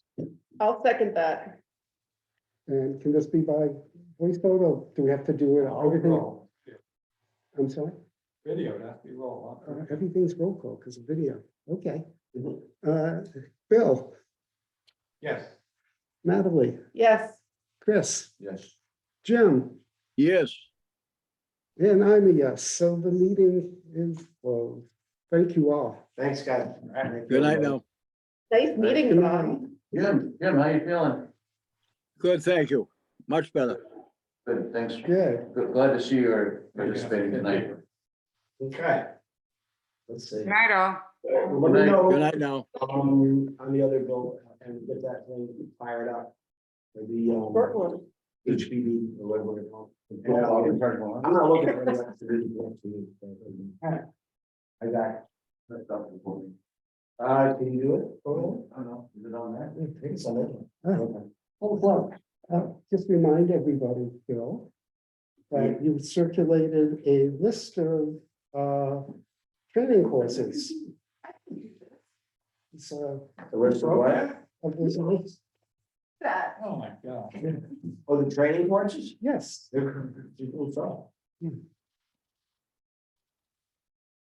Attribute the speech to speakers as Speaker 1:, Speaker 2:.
Speaker 1: I'll second that.
Speaker 2: And can this be by voice vote or do we have to do it, everything,
Speaker 3: Roll. Yeah,
Speaker 2: I'm sorry,
Speaker 3: Video, it has to be roll.
Speaker 2: Uh, everything's roll call because of video, okay. Uh, Bill,
Speaker 3: Yes.
Speaker 2: Natalie,
Speaker 1: Yes,
Speaker 2: Chris,
Speaker 3: Yes.
Speaker 2: Jim,
Speaker 4: Yes,
Speaker 2: and I'm a yes, so the meeting is closed. Thank you all.
Speaker 3: Thanks, guys.
Speaker 4: good night now.
Speaker 1: nice meeting you. all.
Speaker 3: Jim, Jim, how you feeling?
Speaker 4: Good, thank you. Much better.
Speaker 5: Good, thanks.
Speaker 2: Good.
Speaker 5: Good- Glad to see you're participating tonight.
Speaker 3: Okay. Let's see.
Speaker 6: Night all.
Speaker 3: Let me
Speaker 4: Good
Speaker 3: know,
Speaker 4: night now.
Speaker 3: um, on the other bill and get that thing fired up. For The,
Speaker 1: Work
Speaker 3: um,
Speaker 1: one.
Speaker 3: HPV, or whatever they're called. And, uh, I'm not looking for anyone to really want to. uh, I got it. Uh, can you do it? Oh, I don't know. Is it on that? I think it's on that one.
Speaker 2: Uh, Hold on, Uh, just remind everybody, Bill, that you circulated a list of uh, training courses. So,
Speaker 3: The rest of what?
Speaker 2: of this list,
Speaker 1: That.
Speaker 3: Oh, my God. Oh, the training marches?
Speaker 2: yes,
Speaker 3: They're, they're cool stuff.
Speaker 2: Hmm.